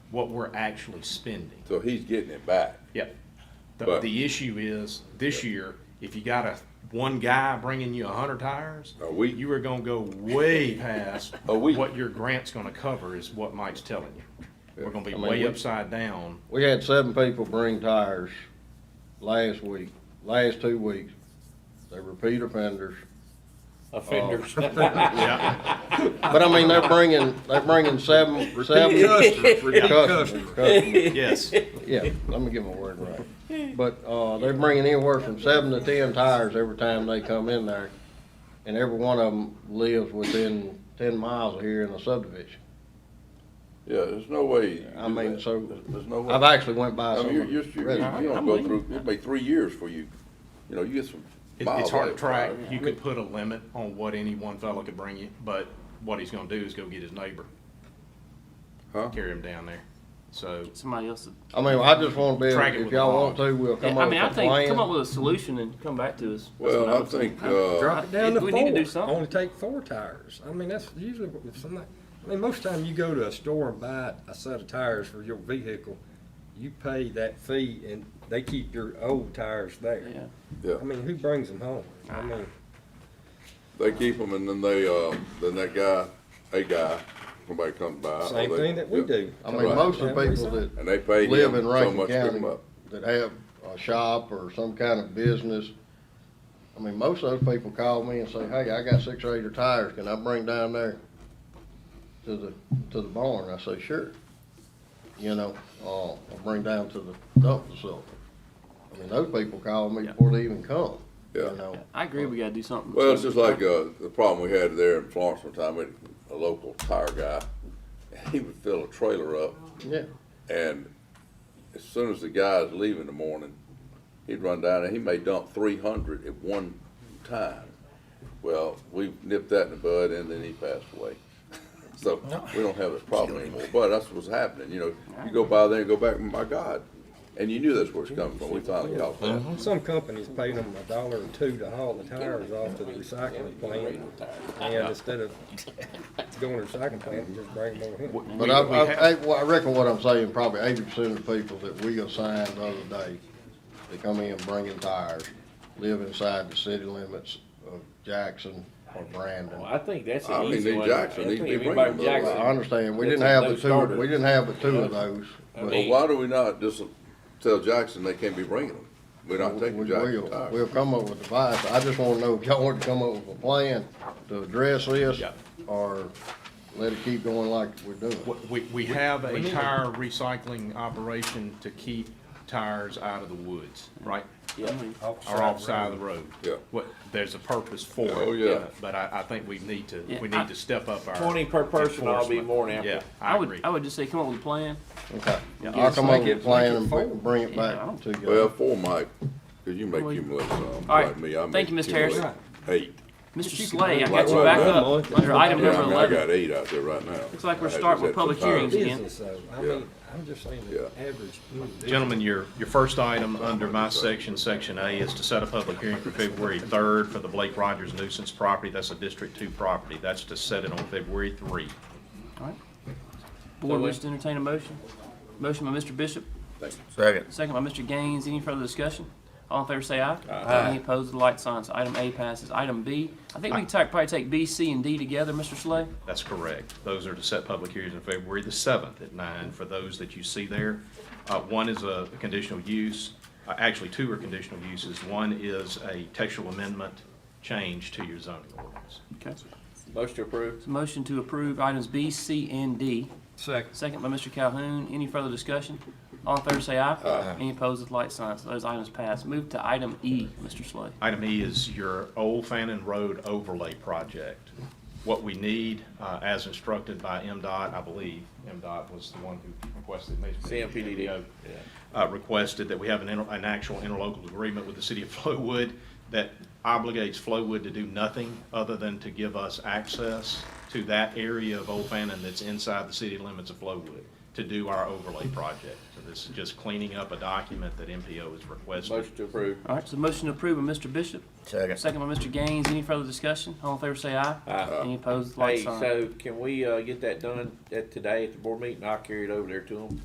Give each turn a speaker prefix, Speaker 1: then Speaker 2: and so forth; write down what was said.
Speaker 1: what we're actually spending.
Speaker 2: So he's getting it back.
Speaker 1: Yep. The,
Speaker 2: But-
Speaker 1: the issue is, this year, if you got a, one guy bringing you a hundred tires,
Speaker 2: A week.
Speaker 1: you are gonna go way past
Speaker 2: Oh. A week.
Speaker 1: what your grant's gonna cover is what Mike's telling you. We're gonna be
Speaker 3: I mean,
Speaker 1: way
Speaker 3: we-
Speaker 1: upside down.
Speaker 3: We had seven people bring tires last week, last two weeks. They were repeat offenders.
Speaker 4: offenders.
Speaker 3: But I mean, they're bringing, they're bringing seven, seven.
Speaker 5: customers, repeat
Speaker 3: Customers, customers.
Speaker 1: Yes,
Speaker 3: Yeah, let me get my word right. But, uh, they're bringing anywhere from seven to ten tires every time they come in there. And every one of them lives within ten miles of here in the subdivision.
Speaker 2: Yeah, there's no way. you
Speaker 3: I
Speaker 2: do
Speaker 3: mean,
Speaker 2: that.
Speaker 3: so-
Speaker 2: There's- There's no way.
Speaker 3: I've actually went
Speaker 2: I
Speaker 3: by some.
Speaker 2: mean, you're, you're, you you
Speaker 3: residents.
Speaker 2: don't go through, it'll be three years for you, you know, you get some
Speaker 1: It-
Speaker 2: miles.
Speaker 1: it's hard to
Speaker 2: out.
Speaker 1: track. You could put a limit on what any one fellow could bring you, but what he's gonna do is go get his neighbor,
Speaker 2: Huh?
Speaker 1: carry him down there. So,
Speaker 5: Somebody else. would-
Speaker 3: I mean, I just wanna be,
Speaker 1: Track it
Speaker 3: if
Speaker 1: with a
Speaker 3: y'all
Speaker 1: log.
Speaker 3: want to, we'll come
Speaker 5: I
Speaker 3: up
Speaker 5: mean,
Speaker 3: with
Speaker 5: I
Speaker 3: a
Speaker 5: think, come up
Speaker 3: plan.
Speaker 5: with a solution and come back to us. That's what
Speaker 2: Well, I
Speaker 5: would
Speaker 2: think,
Speaker 5: say.
Speaker 2: uh,
Speaker 6: Drop it down to
Speaker 5: We need to do
Speaker 6: four,
Speaker 5: something.
Speaker 6: only take four tires. I mean, that's usually, what- if somebody, I mean, most time you go to a store and buy a set of tires for your vehicle, you pay that fee and they keep your old tires there.
Speaker 5: Yeah.
Speaker 2: yeah,
Speaker 6: I mean, who brings them home? I mean,
Speaker 2: they keep them and then they, uh, then that guy, a guy, somebody comes
Speaker 1: Ah,
Speaker 2: by. or
Speaker 6: same
Speaker 2: they-
Speaker 6: thing that we
Speaker 2: yeah.
Speaker 6: do.
Speaker 3: I mean, most of the people that
Speaker 2: And they pay
Speaker 3: live
Speaker 2: him
Speaker 3: in
Speaker 2: so
Speaker 3: Rankin
Speaker 2: much to pick them
Speaker 3: County
Speaker 2: up.
Speaker 3: that have a shop or some kind of business, I mean, most of those people call me and say, hey, I got six or eight of tires, can I bring down there to the, to the barn? I say, sure. You know, uh, I'll bring down to the dump facility. I mean, those people call me
Speaker 5: Yeah.
Speaker 3: before they even come, you
Speaker 2: Yeah.
Speaker 3: know?
Speaker 5: I agree, we gotta do something.
Speaker 2: Well, it's just like, uh, the problem we had there in Florence one time, we had a local tire guy, he would fill a trailer up
Speaker 3: Yeah,
Speaker 2: And as soon as the guys leave in the morning, he'd run down and he may dump three hundred at one time. Well, we nipped that in the bud and then he passed away. So we don't have this problem anymore, but that's what's happening, you know, you go by there and go back, my God. And you knew that's where it's coming from, we finally caught that.
Speaker 6: Some companies pay them a dollar or two to haul the tires off to the recycling plant. And instead of going to the recycling plant, just bring them over here.
Speaker 1: w-
Speaker 3: but
Speaker 1: we-
Speaker 3: I,
Speaker 1: we
Speaker 3: I,
Speaker 1: have-
Speaker 3: I- well, I reckon what I'm saying, probably eighty percent of the people that we assigned the other day, they come in bringing tires, live inside the city limits of Jackson or Brandon.
Speaker 4: Well, I think that's
Speaker 2: I
Speaker 4: an
Speaker 2: mean,
Speaker 4: easy
Speaker 2: they
Speaker 4: one.
Speaker 2: Jackson,
Speaker 4: I
Speaker 2: they-
Speaker 4: think
Speaker 2: they
Speaker 4: if
Speaker 2: bring
Speaker 4: anybody
Speaker 2: them
Speaker 3: Well, I
Speaker 4: Jackson,
Speaker 3: understand, we
Speaker 4: That's
Speaker 3: didn't
Speaker 4: a
Speaker 3: have the
Speaker 4: no-starter.
Speaker 3: two, we didn't have the two of those,
Speaker 4: I
Speaker 3: but
Speaker 2: But
Speaker 3: we
Speaker 4: mean,
Speaker 2: why do we not just tell Jackson they can't be bringing them? We're not taking Jackson
Speaker 3: will,
Speaker 2: tires.
Speaker 3: we'll come up with a device. I just wanna know if y'all want to come up with a plan to address this,
Speaker 1: Yeah.
Speaker 3: or let it keep going like we're doing.
Speaker 1: w- we, we have a tire recycling operation to keep tires out of the woods,
Speaker 5: Mm-hmm.
Speaker 1: right?
Speaker 5: I mean,
Speaker 1: Or off side of the road.
Speaker 2: Yeah.
Speaker 1: What, there's a purpose for it.
Speaker 2: Oh, yeah.
Speaker 1: But I, I think we need to,
Speaker 5: Yeah,
Speaker 1: we
Speaker 5: I-
Speaker 1: need to step up our.
Speaker 4: Twenty per person, I'll be
Speaker 1: enforcement.
Speaker 4: more than
Speaker 1: Yeah,
Speaker 4: happy.
Speaker 1: I
Speaker 5: would,
Speaker 1: agree.
Speaker 5: I would just say, come up with a plan.
Speaker 3: Okay,
Speaker 5: Yeah.
Speaker 3: I'll come up
Speaker 6: Make it-
Speaker 3: with a plan
Speaker 6: make it
Speaker 3: and
Speaker 6: full.
Speaker 3: br- bring it
Speaker 5: Yeah, I
Speaker 3: back
Speaker 5: don't-
Speaker 3: to you.
Speaker 2: Well, for Mike, cause you make
Speaker 5: Well, you-
Speaker 2: cumulative, um,
Speaker 5: All right.
Speaker 2: like me, I make
Speaker 5: Thank you, Mr. Harris.
Speaker 2: cumulative Eight.
Speaker 5: Mr. Slay,
Speaker 2: Like
Speaker 5: I got you
Speaker 2: right
Speaker 5: back
Speaker 2: now,
Speaker 5: up
Speaker 6: Mike.
Speaker 5: under item
Speaker 2: Yeah,
Speaker 5: number
Speaker 2: I mean, I
Speaker 5: eleven.
Speaker 2: got eight out there right now.
Speaker 5: Looks like we're
Speaker 2: I had
Speaker 5: starting
Speaker 2: to
Speaker 5: with
Speaker 2: set some
Speaker 5: public
Speaker 2: tires.
Speaker 5: hearings. again.
Speaker 6: Business, though. I
Speaker 2: Yeah.
Speaker 6: mean, I'm just saying the
Speaker 2: Yeah.
Speaker 6: average individual.
Speaker 1: Gentlemen, your, your first item under my section, section A, is to set a public hearing for February third for the Blake Rogers nuisance property. That's a District Two property. That's to set it on February three.
Speaker 5: All right. Board wishes to entertain a motion. Motion by Mr. Bishop,
Speaker 7: Second.
Speaker 5: second by Mr. Gaines. Any further discussion? All in favor say aye. Aye. Any opposed with the light signs. Item A passes. Item B, I think we can ta- probably take B, C, and D together, Mr. Slay.
Speaker 1: That's correct. Those are to set public hearings on February the seventh at nine for those that you see there. Uh, one is a conditional use, uh, actually, two are conditional uses. One is a textual amendment change to your zoning ordinance.
Speaker 5: Okay.
Speaker 4: Most approved.
Speaker 5: So motion to approve items B, C, and D.
Speaker 6: Second.
Speaker 5: Second by Mr. Calhoun. Any further discussion? All in favor say aye. Aye. Any opposed with light signs. Those items pass. Move to item E, Mr. Slay.
Speaker 1: Item E is your Old Fannin Road overlay project. What we need, uh, as instructed by MDOT, I believe, MDOT was the one who requested. maybe
Speaker 4: CMPDD.
Speaker 1: MDO, Uh, requested that we have an, inter- an actual interlocal agreement with the city of Flowood that obligates Flowood to do nothing other than to give us access to that area of Old Fannin that's inside the city limits of Flowood to do our overlay project. So this is just cleaning up a document that MPO has requested.
Speaker 4: Most approved.
Speaker 5: All right, so motion to approve by Mr. Bishop.
Speaker 7: Second.
Speaker 5: Second by Mr. Gaines. Any further discussion? All in favor say aye.
Speaker 4: Aye.
Speaker 5: Any opposed,
Speaker 4: Hey,
Speaker 5: like sign.
Speaker 4: so can we, uh, get that done at today at the board meeting? I'll carry it over there to them.